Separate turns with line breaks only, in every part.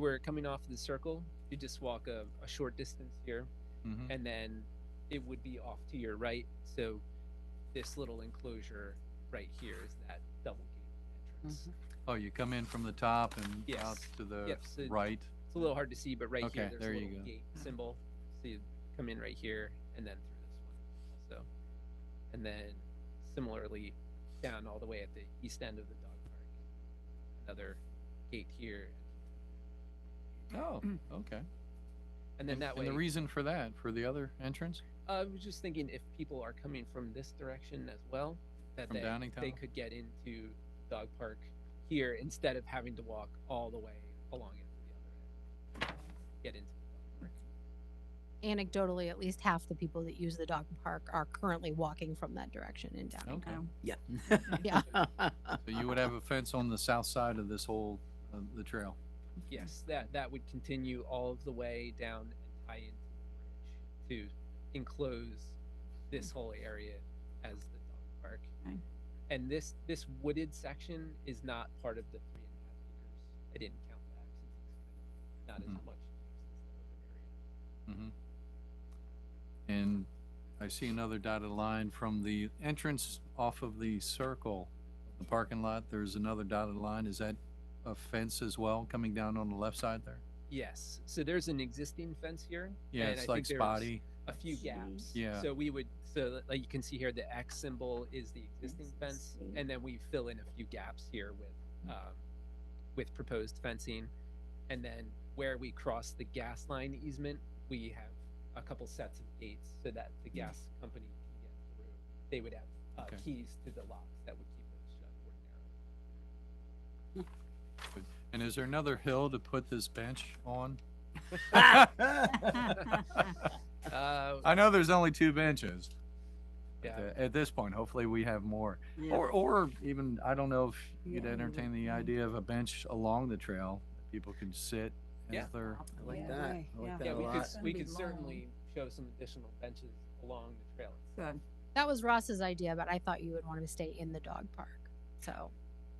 we're coming off the circle, you just walk a, a short distance here,
Mhm.
and then it would be off to your right. So this little enclosure right here is that double gate entrance.
Oh, you come in from the top and out
Yes.
to the
Yep, so
right?
It's a little hard to see, but right
Okay,
here there's
there
a
you
little
go.
gate symbol. So you come in right here and then through this one also. And then similarly down all the way at the east end of the dog park. Another gate here.
Oh, okay.
And then that way
And the reason for that, for the other entrance
I was just thinking if people are coming from this direction as well, that
from
they, they
Downingtown?
could get into dog park here instead of having to walk all the way along it to the other end. Get into the dog park.
Anecdotally, at least half the people that use the dog park are currently walking from that direction in
Okay.
downtown.
Yeah.
Yeah.
So you would have a fence on the south side of this whole, uh, the trail?
Yes, that that would continue all of the way down and tie into the bridge to enclose this whole area as the dog park.
Okay.
And this this wooded section is not part of the three and a half acres. I didn't count that since it's kind of not
Mhm.
as much. used
Mhm. And I see another dotted line from the entrance off of the circle, the parking lot, there's another dotted line. Is that a fence as well coming down on the left side there?
as that area. Yes, so there's an existing fence here.
Yeah,
and I
it's
think
like
there's
spotty.
A few
See.
gaps.
Yeah.
So we would, so like you can see here, the X symbol is the existing
Yes, I
fence.
see.
And then we fill in a few gaps here
Hmm.
with, um, with proposed fencing. And then where we cross the gas line easement, we have a couple sets of gates so that the gas company can get through. They would have, uh,
Hmm. Okay.
keys to the locks that would keep those shut or
And is there another hill to put this bench on?
down. Uh,
I know there's only two benches. but,
Yeah.
uh, At this point, hopefully we have more.
Yeah.
Or, or even, I don't know if you'd
Yeah.
entertain the idea of a bench along the trail. that People can sit
Yeah.
as they're.
I like
Yeah,
that.
right,
I like
yeah.
that
yeah,
a
we could,
lot.
It's gonna
we
be
could
long.
certainly show some additional benches along the trail.
Good.
That was Ross's idea, but I thought you would want to stay in the dog park. So,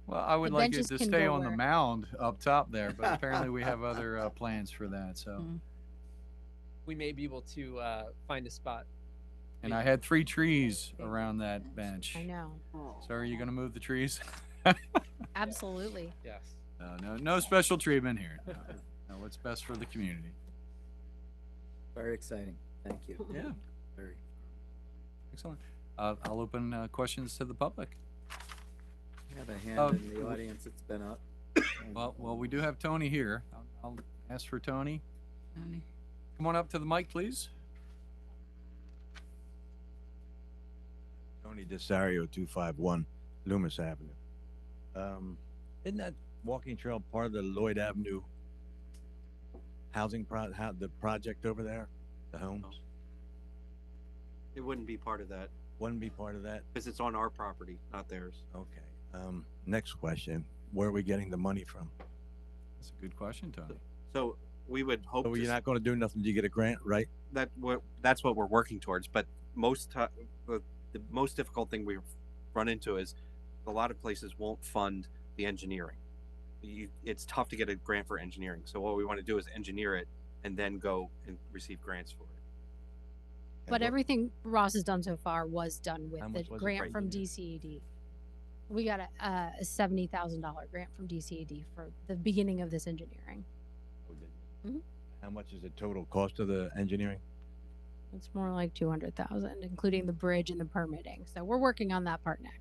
Well, I would like it
benches
to
can
stay
go
on the
where-
mound up top there, but apparently we have other uh, plans for that, so.
Mm-hmm.
Mm.
We may be able to, uh, find a spot
And I had three trees
Big
around that
bench.
bench.
I know.
Oh.
So are you gonna move the trees?
Absolutely.
Yes.
No, no, no special treatment here. No, No, what's best for the community.
Very exciting. Thank you.
Yeah.
Very.
Excellent. Uh, I'll open, uh, questions to the public.
I Have a hand
Um,
in the
w-
audience. It's been up.
Well, well, we do have Tony here. I'll, I'll ask for Tony.
Tony.
Come on up to the mic, please.
Tony Desario, two five one Loomis Avenue. Um, isn't that walking trail part of the Lloyd Avenue housing pro, how, the project over there, the homes?
It wouldn't be part of that
Wouldn't be part of that?
because it's on our property, not theirs.
Okay. Um, next question, where are we getting the money from?
That's a good question, Tony.
So we would hope
Oh,
to
you're
s-
not gonna do nothing till you get a grant, right?
that what that's what we're working towards. But most ti the, the most difficult thing we've run into is a lot of places won't fund the engineering. You, it's tough to get a grant for engineering. So what we want to do is engineer it and then go and receive grants for it.
And
But
what-
everything Ross has done so far was done with
How
the
much was it?
grant
Right,
from
you did.
DCED. We got a, uh, a seventy thousand dollar grant from DCED for the beginning of this engineering. Mhm.
How much is the total cost of the engineering?
It's more like two hundred thousand, including the bridge and the permitting. So we're working on that part next.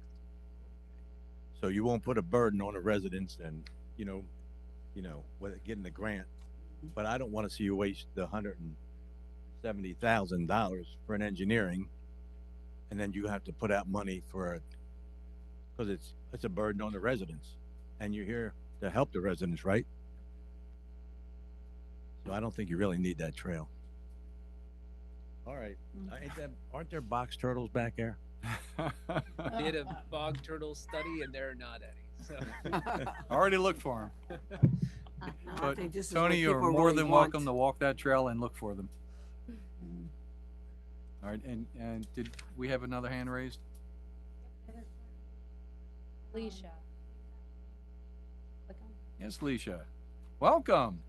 So you won't put a burden on the residents and, you know, you know, with getting the grant. But I don't want to see you waste the hundred and seventy thousand dollars for an engineering. And then you have to put out money for, because it's, it's a burden on the residents. And you're here to help the residents, right? So I don't think you really need that trail. All right, Uh, ain't that- aren't there box turtles back there?
did a bog turtle study and there are not any. So
Already looked for 'em.
Uh-huh.
But
I
think this is
Tony,
what
you're
people
more
really
than welcome
want. Hmm.
to walk that trail and look for them. All right, and, and did we have another hand raised?
Alicia.
Yes, Leisha. Welcome.